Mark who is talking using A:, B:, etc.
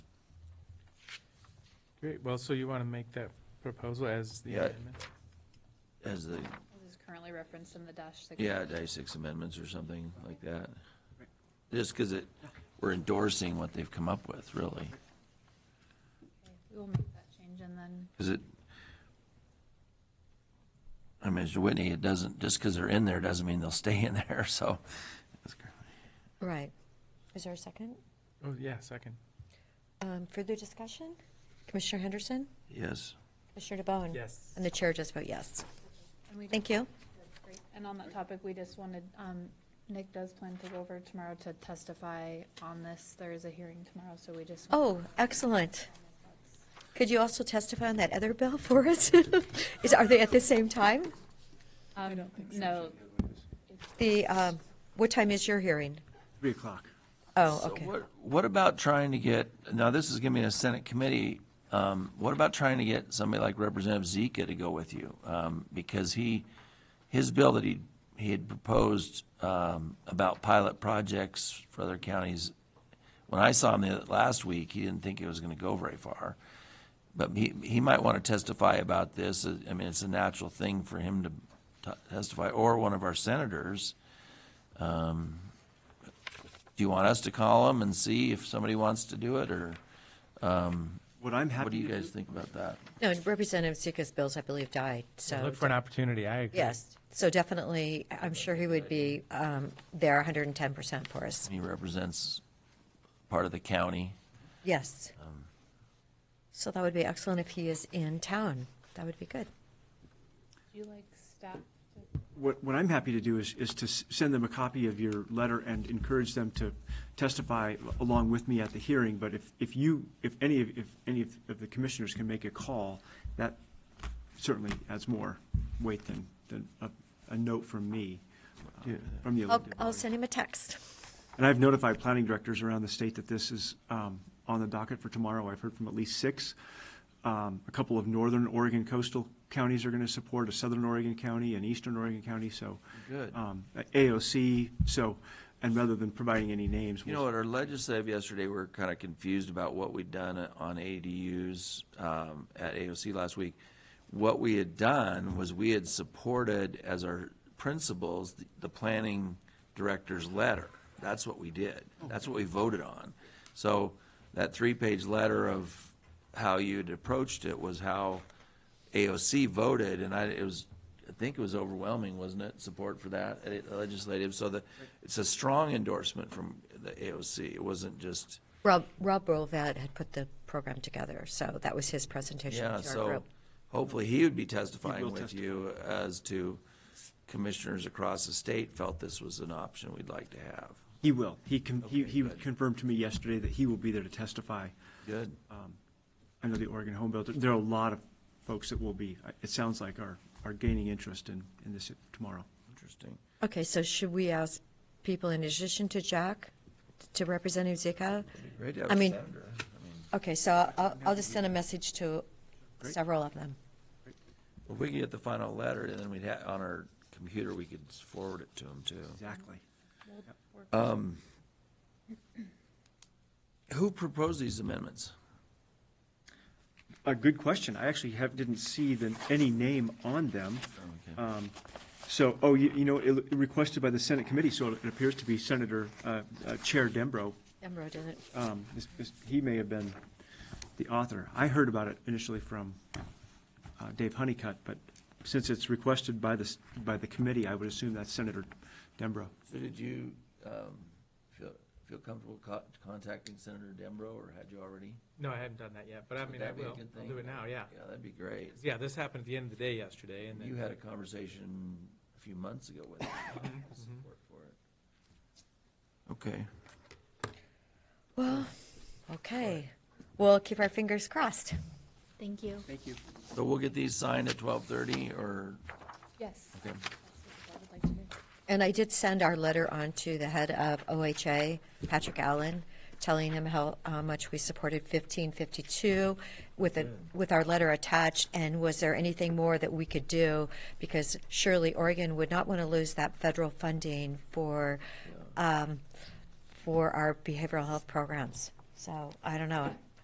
A: Great, well, so you want to make that proposal as the
B: Yeah.
A: amendment?
B: as the,
C: This is currently referenced in the dash six.
B: yeah, day six amendments or something like that. Just because it, we're endorsing what they've come up with, really.
C: We will make that change and then,
B: Because it, I mean, Mr. Whitney, it doesn't, just because they're in there doesn't mean they'll stay in there, so.
D: Right. Is there a second?
A: Oh, yeah, second.
D: Um, Further discussion? Commissioner Henderson?
B: Yes,
D: Commissioner DeBonne?
A: Yes.
D: And the chair just vote yes.
C: and we just.
D: Thank you.
C: And on that topic, we just wanted, um, Nick does plan to go over tomorrow to testify on this. There is a hearing tomorrow, so we just. want-
D: Oh, excellent. Could you also testify on that other bill for us? Is, are they at the same time?
C: Um, No,
D: The, um, what time is your hearing?
E: Three o'clock.
D: Oh,
B: So
D: okay.
B: What, what about trying to get, now this is gonna be in a Senate committee, um, what about trying to get somebody like Representative Zika to go with you? Um, because he, his bill that he, he had proposed, um, about pilot projects for other counties, when I saw him the, last week, he didn't think it was gonna go very far. But he, he might wanna testify about this, uh, I mean, it's a natural thing for him to t- testify, or one of our senators. Do you want us to call them and see if somebody wants to do it, or
E: What I'm happy.
B: what do you
E: to
B: guys think about that?
D: No, Representative Sika's bills, I believe, died, so.
A: Look for an opportunity, I agree.
D: Yes, so definitely, I- I'm sure he would be um, there 110% for us.
B: He represents part of the county.
D: Yes.
B: Um,
D: So that would be excellent if he is in town. That would be good.
C: do you like staff? to-
E: What, what I'm happy to do is, is to s- send them a copy of your letter and encourage them to testify along with me at the hearing. But if, if you, if any of, if any of of the commissioners can make a call, that certainly adds more weight than, than a, a note from me, uh, from the
D: I'll,
E: elected
D: I'll
E: body.
D: send him a text.
E: And I've notified planning directors around the state that this is um, on the docket for tomorrow. I've heard from at least six. Um, A couple of northern Oregon coastal counties are going to support, a southern Oregon county, and eastern Oregon county, so.
B: Good.
E: um, AOC, so, and rather than providing any names.
B: You know, at our legislative yesterday, we were kind of confused about what we'd done on ADUs um, at AOC last week. What we had done was we had supported as our principles, the- the planning director's letter. That's what we did. That's what we voted on. So that three-page letter of how you'd approached it was how AOC voted, and I, it was, I think it was overwhelming, wasn't it, support for that eh, legislative? So the, it's a strong endorsement from the AOC. It wasn't just,
D: Rob, Rob Rolvat had put the program together, so that was his presentation
B: yeah,
D: to our
B: so
D: group.
B: hopefully he would be
E: He
B: testifying
E: will
B: with you as to commissioners across the state felt this was an option we'd like to have.
E: He will. He con- he
B: Okay,
E: he
B: good.
E: confirmed to me yesterday that he will be there to testify
B: Good.
E: Uh, under the Oregon Home Bill. There are a lot of folks that will be, it sounds like, are, are gaining interest in, in this tomorrow.
B: Interesting.
D: Okay, so should we ask people in addition to Jack, to Representative Zika?
B: Great to have
D: I
B: a
D: mean-
B: senator. I mean,
D: Okay, so I'll, I'll just send a message to several of them.
B: If we could get the final letter, and then we'd have, on our computer, we could forward it to him too.
E: Exactly.
B: Um, Who proposed these amendments?
E: A good question. I actually have, didn't see the, any name on them.
B: Okay.
E: So, oh, you, you know, it requested by the Senate committee, so it appears to be Senator, uh, uh, Chair Dembro.
D: Emro didn't.
E: Um, is- is- he may have been the author. I heard about it initially from, uh, Dave Honeycutt, but since it's requested by the, s- by the committee, I would assume that's Senator Dembro.
B: So did you um, feel feel comfortable co- contacting Senator Dembro, or had you already?
A: No, I haven't done that yet, but I
B: Would
A: mean, I
B: that be a
A: will,
B: good
A: I'll
B: thing?
A: do it now, yeah.
B: Yeah, that'd be great.
A: Yeah, this happened at the end of the day yesterday, and
B: You
A: then,
B: had a conversation a few months ago with him. about support for it. Okay.
D: Well, okay. We'll keep our fingers crossed.
C: Thank you.
E: Thank you.
B: So we'll get these signed at 12:30, or,
C: Yes.
B: okay,
C: I would like to do.
D: And I did send our letter on to the head of OHA, Patrick Allen, telling him how uh, much we supported 1552 with, a, with our letter attached, and was there anything more that we could do? Because surely Oregon would not want to lose that federal funding for, um, for our behavioral health programs. So I don't know.